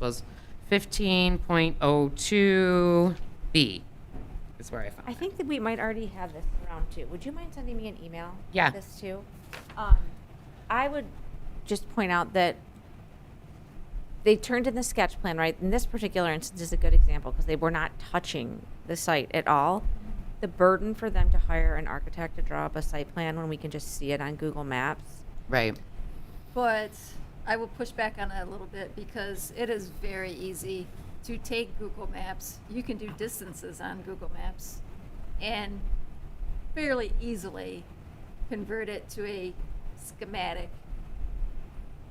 was 15.02B is where I found I it. think that we might already have this around too. Would you mind sending me an email? with Yeah. This too? Um, I would just point out that they turned in the sketch plan, right? And this particular instance is a good example because they were not touching the site at all. The burden for them to hire an architect to draw up a site plan when we can just see it on Google Maps. Right. But I will push back on that a little bit because it is very easy to take Google Maps. You can do distances on Google Maps and fairly easily convert it to a schematic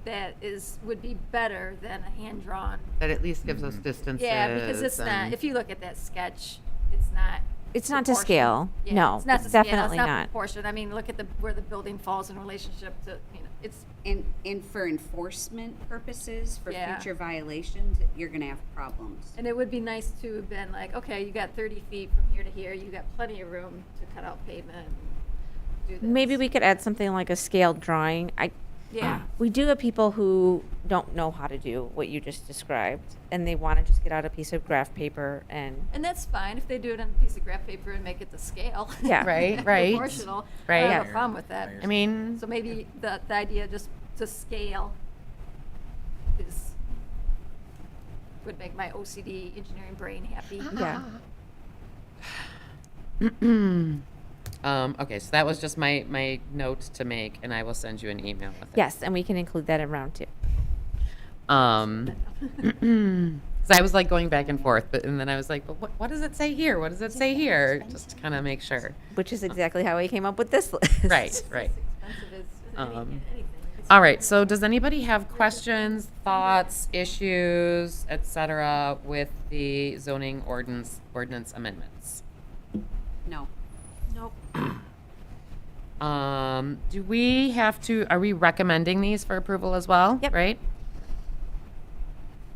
that is, would be better than a hand-drawn. That at least gives us distances. Yeah, because it's not, and- if you look at that sketch, it's not. It's not to proportioned. scale. Yeah, No, not it's to scale. definitely not. It's not proportioned. I mean, look at the, where the building falls in relationship to, you know, it's, And, and for enforcement purposes, for Yeah. future violations, you're gonna have problems. And it would be nice to have been like, okay, you got thirty feet from here to here, you got plenty of room to cut out pavement and do this. Maybe we could add something like a scaled drawing. I, Yeah, we do have people who don't know how to do what you just described and they want to just get out a piece of graph paper and and that's fine if they do it on a piece of graph paper and make it to scale. Yeah. Right, right, Proportional. I right. have a problem with that. I mean, So maybe the, the idea just to scale is, would make my OCD engineering brain happy. yeah um, okay, so that was just my, my note to make, and I will send you an email with it. yes and we can include that in round two Um, so I was like going back and forth, but and then I was like, but what, what does it say here? What does it say here? Just to kind of make sure. which is exactly how we came up with this list Right, right. Expensive is, I mean, Um, anything. It's- All right. So does anybody have questions, thoughts, issues, etc., with the zoning ordinance ordinance amendments? No. Nope. Um, do we have to? Are we recommending these for approval as well? Yep. Right.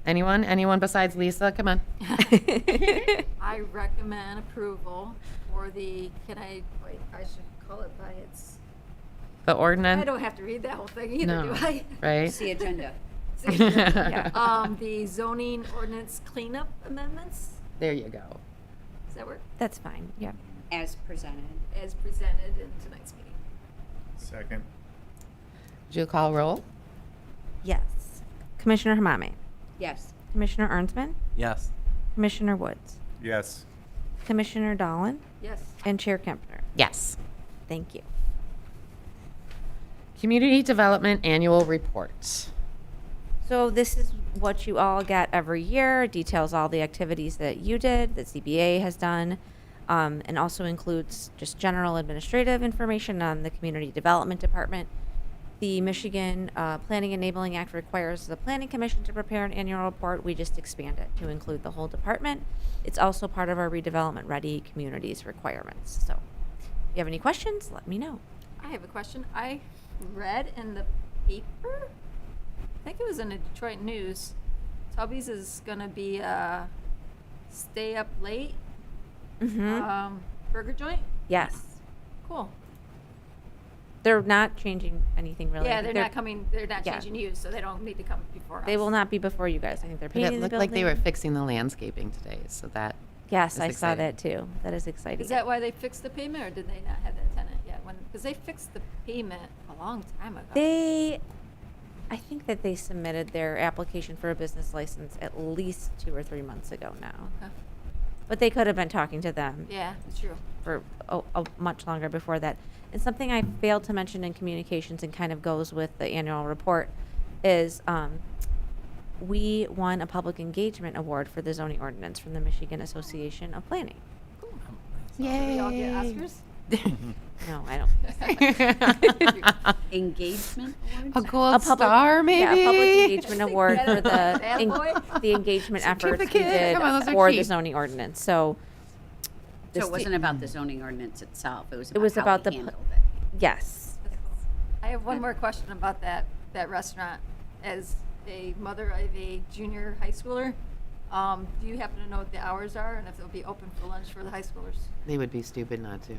Anyone? Anyone besides Lisa? Come on. I recommend approval for the, can I, wait, I should call it by its, The I ordinance. don't have to read that whole thing either, do No, I? Right. It's the agenda. Um, the zoning ordinance cleanup amendments, There you go. does that work, that's fine yeah As presented. as presented in tonight's meeting? Second. Do you call roll? yes commissioner hamame Yes. commissioner ernstman Yes. commissioner woods Yes. commissioner dolan Yes. and chair kempner Yes. thank you Community Development Annual Report. So this is what you all get every year. It Details all the activities that you did, that CBA has done, um, and also includes just general administrative information on the community development department. The Michigan uh, Planning Enabling Act requires the Planning Commission to prepare an annual report. We just expand it to include the whole department. It's also part of our redevelopment ready communities requirements. So, if you have any questions, let me know. I have a question. I read in the paper, I think it was in the Detroit News, Tubby's is gonna be a stay up late, hmm um, burger joint? yes, Cool. they're not changing anything really. Yeah, they're not coming, they're not yeah. changing you, so they don't need to come before us. They will not be before you guys. I think they're But painting it the looked building. like they were fixing the landscaping today, so that, Yes, That's I saw exciting. that too. That is exciting. Is that why they fixed the payment, or did they not have that tenant yet? When, because they fixed the payment a long time ago. they? I think that they submitted their application for a business license at least two or three months ago now. Huh. But they could have been talking to them Oh. Yeah, it's true. for a, a much longer before that. And something I failed to mention in communications and kind of goes with the annual report is um, we won a public engagement award for the zoning ordinance from the Michigan Association of Planning. Did we all get Oscars? No, I don't. Engagement awards? a gold a public- star, maybe? Yeah, a public engagement award for the Bad en- boy. the engagement efforts we Certificate. did Come on, those are for the cheap. zoning ordinance. So, So this it wasn't about the zoning ordinance itself, it was It was about about how the we pl- handled it. yes, I have one more question about that, that restaurant. As a mother of a junior high schooler, um, do you happen to know what the hours are and if they'll be open for lunch for the high schoolers? They would be stupid not to.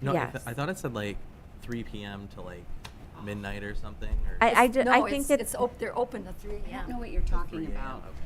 No, I, th- Yes. I thought it said like 3 p.m. to like midnight or something. Or I I, did, No, I think it's- that It's, op- they're open to three I don't know AM. what you're talking 3 a.m., about. okay.